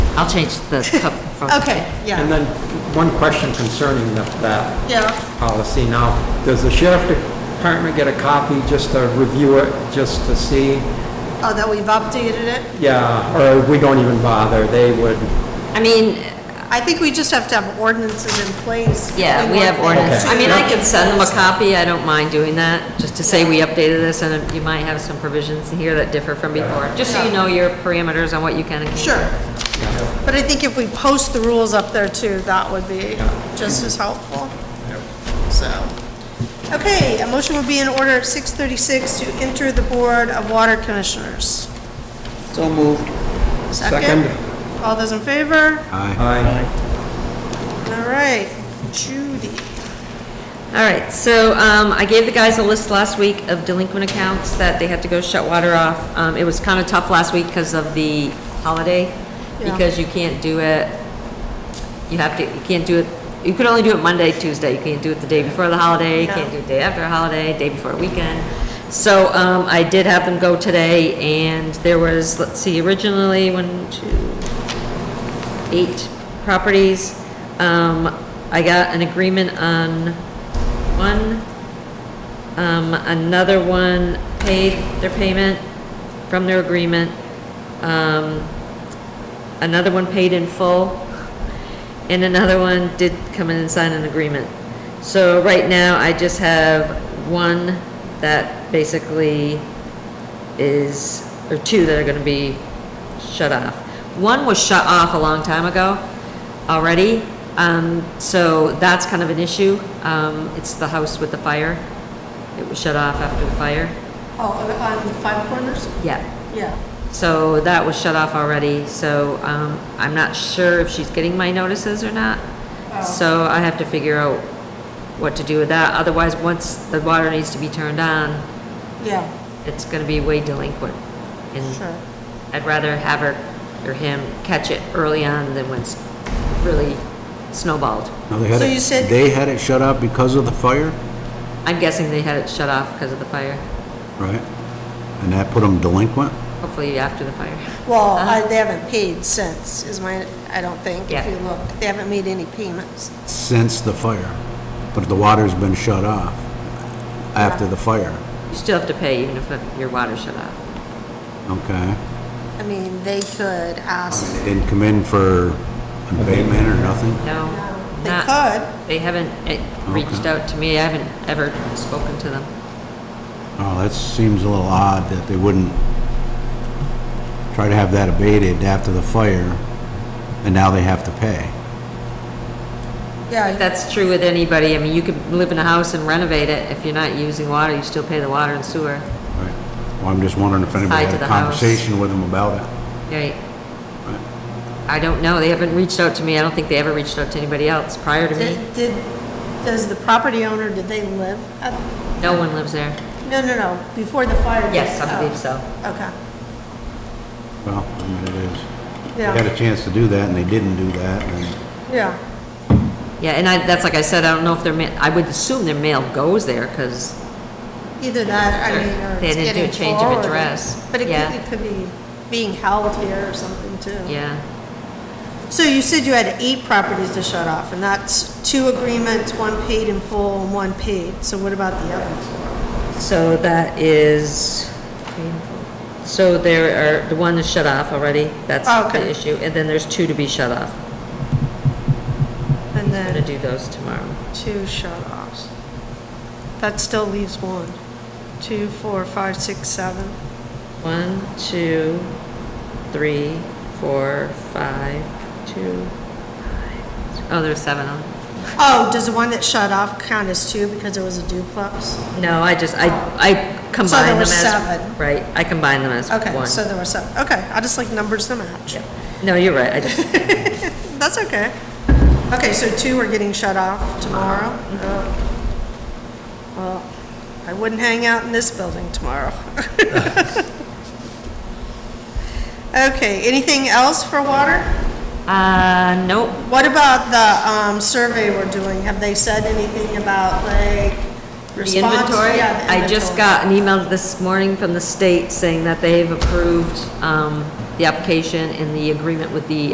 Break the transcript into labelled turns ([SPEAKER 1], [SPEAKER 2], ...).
[SPEAKER 1] I'll change the cup. from-
[SPEAKER 2] Okay,
[SPEAKER 3] And
[SPEAKER 2] yeah,
[SPEAKER 3] then, one question concerning the- that
[SPEAKER 2] yeah.
[SPEAKER 3] policy now. Does the sheriff department get a copy just to review it, just to see?
[SPEAKER 2] Oh, that we've updated it?
[SPEAKER 3] Yeah, or we don't even bother, they would,
[SPEAKER 1] I mean,
[SPEAKER 2] I think we just have to have ordinances in place.
[SPEAKER 1] yeah, we have
[SPEAKER 2] want
[SPEAKER 1] ordinance.
[SPEAKER 2] things
[SPEAKER 1] I mean,
[SPEAKER 2] to-
[SPEAKER 1] I could send them a copy, I don't mind doing that, just to say we updated this, and you might have some provisions in here that differ from before, just so you
[SPEAKER 2] Yeah.
[SPEAKER 1] know your parameters on what you can and can't.
[SPEAKER 2] Sure. But I think if we post the rules up there too, that would be just as helpful. So, okay, a motion would be in order at 6:36 to enter the Board of Water Commissioners.
[SPEAKER 4] So moved.
[SPEAKER 2] Second? All those in favor?
[SPEAKER 3] Aye.
[SPEAKER 2] All right, Judy.
[SPEAKER 1] All right, so um, I gave the guys a list last week of delinquent accounts that they had to go shut water off. Um, It was kind of tough last week because of the holiday,
[SPEAKER 2] Yeah.
[SPEAKER 1] because you can't do it, you have to, you can't do it, you could only do it Monday, Tuesday, you can't do it the day before the holiday, you
[SPEAKER 2] Yeah.
[SPEAKER 1] can't do it day after a holiday, day before a weekend. So um, I did have them go today, and there was, let's see, originally, one, two, eight properties. Um, I got an agreement on one, um, another one paid their payment from their agreement. Um, another one paid in full, and another one did come in and sign an agreement. So right now, I just have one that basically is, or two that are gonna be shut off. One was shut off a long time ago already, um, so that's kind of an issue. Um, it's the house with the fire. It was shut off after the fire.
[SPEAKER 2] Oh, on the Five Corners?
[SPEAKER 1] Yeah.
[SPEAKER 2] Yeah.
[SPEAKER 1] So that was shut off already, so um, I'm not sure if she's getting my notices or not. So I have to figure out what to do with that. Otherwise, once the water needs to be turned on,
[SPEAKER 2] Yeah,
[SPEAKER 1] it's gonna be way delinquent. And
[SPEAKER 2] sure.
[SPEAKER 1] I'd rather have her or him catch it early on than when it's really snowballed.
[SPEAKER 5] Now, they had
[SPEAKER 2] So you said-
[SPEAKER 5] it, they had it shut off because of the fire,
[SPEAKER 1] I'm guessing they had it shut off because of the fire,
[SPEAKER 5] right? And that put them delinquent?
[SPEAKER 1] hopefully after the fire.
[SPEAKER 2] Well, I- they haven't paid since, is my, I don't think, if
[SPEAKER 1] Uh-huh. Yeah.
[SPEAKER 2] you look. They haven't made any payments.
[SPEAKER 5] since the fire, but the water's been shut off after the fire,
[SPEAKER 1] You still have to pay even if your water's shut off.
[SPEAKER 5] okay?
[SPEAKER 2] I mean, they could ask,
[SPEAKER 5] They Didn't come in for an abatement or nothing?
[SPEAKER 1] No,
[SPEAKER 2] they
[SPEAKER 1] not.
[SPEAKER 2] could.
[SPEAKER 1] They haven't eh, reached
[SPEAKER 5] Okay.
[SPEAKER 1] out to me, I haven't ever spoken to them.
[SPEAKER 5] Oh, that seems a little odd that they wouldn't try to have that abated after the fire, and now they have to pay.
[SPEAKER 2] Yeah,
[SPEAKER 1] That's true with anybody, I mean, you could live in a house and renovate it, if you're not using water, you still pay the water and sewer.
[SPEAKER 5] Right. Well, I'm just wondering if anybody
[SPEAKER 1] Tied to
[SPEAKER 5] had
[SPEAKER 1] the
[SPEAKER 5] a
[SPEAKER 1] house.
[SPEAKER 5] conversation with them about it.
[SPEAKER 1] Right. I don't know, they haven't reached out to me, I don't think they ever reached out to anybody else prior to me.
[SPEAKER 2] did, did, does the property owner, did they live at,
[SPEAKER 1] No one lives there.
[SPEAKER 2] no, no, no, before the fire? did-
[SPEAKER 1] Yes, I
[SPEAKER 2] oh,
[SPEAKER 1] believe so.
[SPEAKER 2] Okay,
[SPEAKER 5] Well, I mean, it is. They had
[SPEAKER 2] yeah,
[SPEAKER 5] a chance to do that, and they didn't do that, and...
[SPEAKER 2] yeah,
[SPEAKER 1] Yeah, and I, that's like I said, I don't know if their ma, I would assume their mail goes there, because
[SPEAKER 2] either that, I mean, or
[SPEAKER 1] They
[SPEAKER 2] it's
[SPEAKER 1] didn't do a
[SPEAKER 2] getting
[SPEAKER 1] change of
[SPEAKER 2] forwarded.
[SPEAKER 1] address,
[SPEAKER 2] But it
[SPEAKER 1] yeah.
[SPEAKER 2] could, it could be being held here or something too.
[SPEAKER 1] yeah,
[SPEAKER 2] So you said you had eight properties to shut off, and that's two agreements, one paid in full and one paid, so what about the other four?
[SPEAKER 1] so that is, so there are, the one is shut off already, that's
[SPEAKER 2] Oh,
[SPEAKER 1] the
[SPEAKER 2] okay.
[SPEAKER 1] issue, and then there's two to be shut off.
[SPEAKER 2] And
[SPEAKER 1] I'm gonna
[SPEAKER 2] then
[SPEAKER 1] do those tomorrow.
[SPEAKER 2] two shut offs. That still leaves one, two, four, five, six, seven.
[SPEAKER 1] One, two, three, four, five, two, five. Oh, there's seven on.
[SPEAKER 2] Oh, does the one that shut off count as two because it was a duplex?
[SPEAKER 1] No, I just, I, I combine them
[SPEAKER 2] were
[SPEAKER 1] as.
[SPEAKER 2] seven.
[SPEAKER 1] Right, I combine them as
[SPEAKER 2] Okay,
[SPEAKER 1] one.
[SPEAKER 2] so there were seven, okay, I just like numbers to match.
[SPEAKER 1] No, you're right, I just,
[SPEAKER 2] That's okay. Okay, so two are getting shut off tomorrow? Oh. Well, I wouldn't hang out in this building tomorrow. Okay, anything else for water?
[SPEAKER 1] uh, nope,
[SPEAKER 2] What about the um, survey we're doing? Have they said anything about like
[SPEAKER 1] The
[SPEAKER 2] response? Oh,
[SPEAKER 1] inventory,
[SPEAKER 2] Yeah, the
[SPEAKER 1] I just
[SPEAKER 2] inventory.
[SPEAKER 1] got an email this morning from the state saying that they've approved, um, the application and the agreement with the